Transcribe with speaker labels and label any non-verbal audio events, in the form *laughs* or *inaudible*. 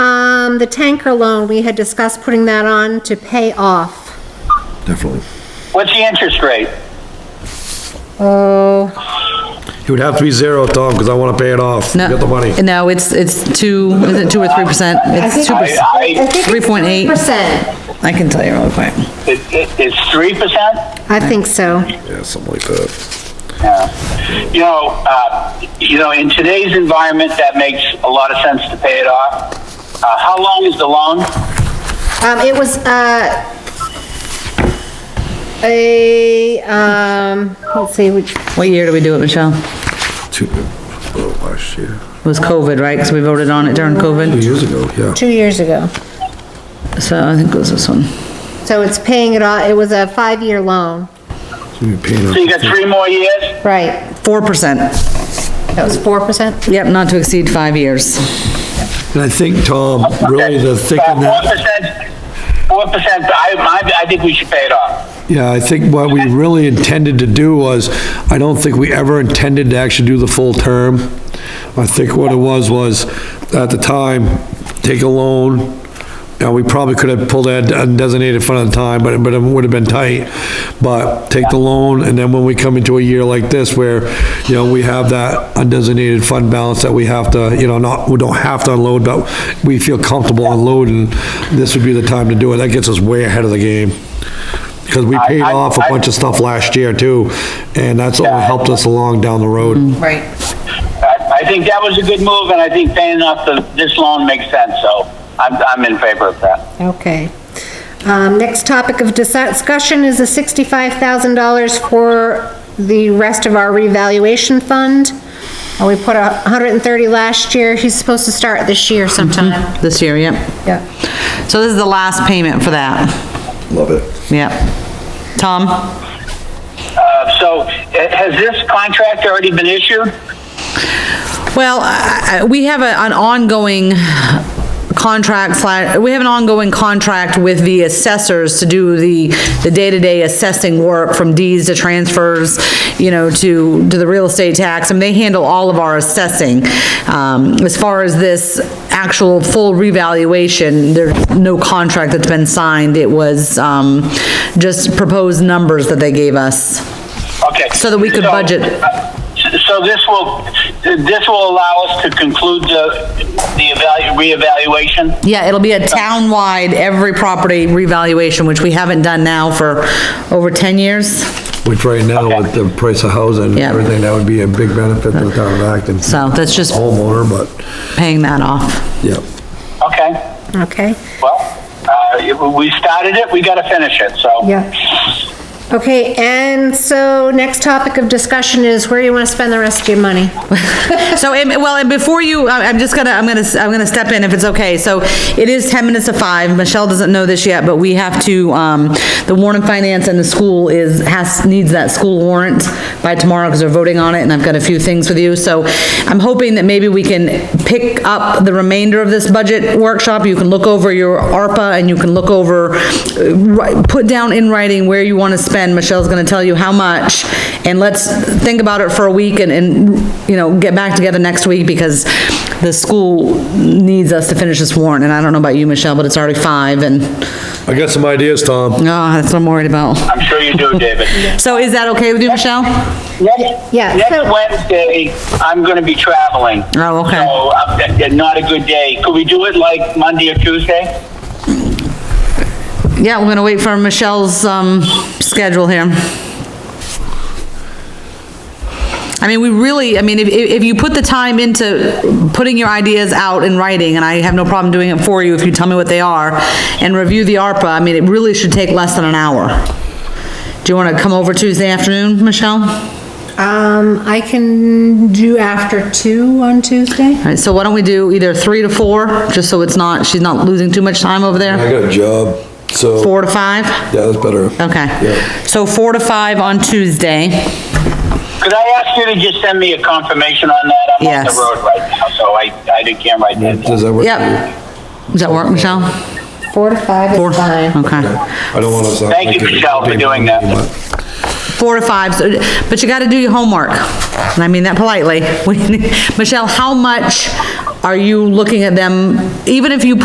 Speaker 1: Um, the tanker loan, we had discussed putting that on to pay off.
Speaker 2: Definitely.
Speaker 3: What's the interest rate?
Speaker 1: Oh,
Speaker 2: It would have to be zero, Tom, because I want to pay it off.
Speaker 4: No,
Speaker 2: Get the money.
Speaker 4: No, it's, it's two, is it two or three percent? It's two percent.
Speaker 3: I, I,
Speaker 1: three point eight
Speaker 4: 3.8.
Speaker 1: Percent,
Speaker 4: I can tell you real quick.
Speaker 3: it, it, it's three percent?
Speaker 1: I think so.
Speaker 2: Yeah, something like that.
Speaker 3: Yeah. You know, uh, you know, in today's environment, that makes a lot of sense to pay it off. Uh, how long is the loan?
Speaker 1: Um, it was, uh, a, um, let's see, which,
Speaker 4: What year did we do it, Michelle?
Speaker 2: Two, oh, last year,
Speaker 4: It was COVID, right? Because we voted on it during
Speaker 2: two
Speaker 4: COVID.
Speaker 2: years ago, yeah.
Speaker 1: two years ago.
Speaker 4: So I think it was this one.
Speaker 1: So it's paying it off, it was a five-year loan.
Speaker 2: We've been paying
Speaker 3: So you
Speaker 2: it
Speaker 3: got three more years?
Speaker 1: Right,
Speaker 4: Four percent.
Speaker 1: that was four percent?
Speaker 4: Yep, not to exceed five years.
Speaker 2: off. And I think, Tom, really the thick in
Speaker 3: Uh, Four
Speaker 2: that,
Speaker 3: percent, four percent, I, I, I think we should pay it off.
Speaker 2: yeah, I think what we really intended to do was, I don't think we ever intended to actually do the full term. I think what it was, was at the time, take a loan. Now, we probably could have pulled that undesignated fund at the time, but, but it would have been tight. But take the loan, and then when we come into a year like this where, you know, we have that undesignated fund balance that we have to, you know, not, we don't have to unload, but we feel comfortable unloading, this would be the time to do it. That gets us way ahead of the game. Because we paid
Speaker 3: I-
Speaker 2: off a bunch of stuff last year too, and that's only helped us along down the road.
Speaker 3: Mm-hmm.
Speaker 4: Right.
Speaker 3: I, I think that was a good move, and I think paying off the, this loan makes sense, so I'm, I'm in favor of that.
Speaker 1: Okay. Um, next topic of discussion is the sixty-five thousand dollars for the rest of our revaluation fund. And we put a hundred and thirty last year, he's supposed to start this year
Speaker 4: Mm-hmm.
Speaker 1: sometime.
Speaker 4: Hmm, This year, yep.
Speaker 1: Yeah.
Speaker 4: So this is the last payment for that.
Speaker 2: Love it.
Speaker 4: Yep. Tom?
Speaker 3: Uh, so, eh, has this contract already been issued?
Speaker 4: Well, I- I- we have a- an ongoing contract, sli- we have an ongoing contract with the assessors to do the, the day-to-day assessing work from deeds to transfers, you know, to, to the real estate tax, and they handle all of our assessing. Um, as far as this actual full revaluation, there's no contract that's been signed. It was, um, just proposed numbers that they gave us.
Speaker 3: Okay.
Speaker 4: So that we could
Speaker 3: So-
Speaker 4: budget.
Speaker 3: So this will, this will allow us to conclude the, the evalu, reevaluation?
Speaker 4: Yeah, it'll be a town-wide, every property revaluation, which we haven't done now for over 10 years.
Speaker 2: Which right now, with the price of housing and
Speaker 4: Yeah.
Speaker 2: everything, that would be a big benefit to the town of Acton.
Speaker 4: So that's just
Speaker 2: Homeowner, but,
Speaker 4: paying that off.
Speaker 2: yeah.
Speaker 3: Okay,
Speaker 1: Okay,
Speaker 3: well, uh, we started it, we gotta finish it, so.
Speaker 1: yeah. Okay, and so next topic of discussion is where you want to spend the rest of your money.
Speaker 4: So, and- well, and before you, I- I'm just gonna, I'm gonna, I'm gonna step in if it's okay. So it is 10 minutes to 5. Michelle doesn't know this yet, but we have to, um, the warrant of finance and the school is, has, needs that school warrant by tomorrow because they're voting on it, and I've got a few things with you. So I'm hoping that maybe we can pick up the remainder of this budget workshop. You can look over your ARPA and you can look over, uh, ri- put down in writing where you want to spend. Michelle's going to tell you how much. And let's think about it for a week and, and, you know, get back together next week because the school needs us to finish this warrant. And I don't know about you, Michelle, but it's already five and,
Speaker 2: I got some ideas, Tom.
Speaker 4: oh, that's what I'm worried about.
Speaker 3: I'm sure you
Speaker 1: *laughs*
Speaker 3: do, David.
Speaker 4: So is that okay with you, Michelle?
Speaker 3: Next-
Speaker 1: Yeah,
Speaker 3: Next
Speaker 1: so-
Speaker 3: Wednesday, I'm gonna be traveling.
Speaker 4: Oh, okay.
Speaker 3: So, uh, that- that- not a good day. Could we do it like Monday or Tuesday?
Speaker 4: Yeah, we're going to wait for Michelle's, um, schedule here. I mean, we really, I mean, if, if if you put the time into putting your ideas out in writing, and I have no problem doing it for you if you tell me what they are, and review the ARPA, I mean, it really should take less than an hour. Do you want to come over Tuesday afternoon, Michelle? All
Speaker 1: Um, I can do after two on Tuesday?
Speaker 4: right, so why don't we do either three to four, just so it's not, she's not losing too much time over there?
Speaker 2: got a job, so.
Speaker 4: Four to five?
Speaker 2: Yeah, that's better.
Speaker 4: Okay.
Speaker 2: Yeah.
Speaker 4: So four to five on Tuesday.
Speaker 3: Could I ask you to just send me a confirmation on that? I'm on the
Speaker 4: Yes.
Speaker 3: road right now, so I, I can't write that down.
Speaker 2: Does that work?
Speaker 4: Yep. Does that work, Michelle?
Speaker 1: Four to five
Speaker 4: Four.
Speaker 1: is fine.
Speaker 4: Okay.
Speaker 2: I don't want to sound.
Speaker 3: Thank you,
Speaker 2: like a-
Speaker 3: Michelle, for doing that.
Speaker 4: Four to five, so- but you gotta do your homework. And I mean that *laughs* politely. Michelle, how much are you looking at them, even if you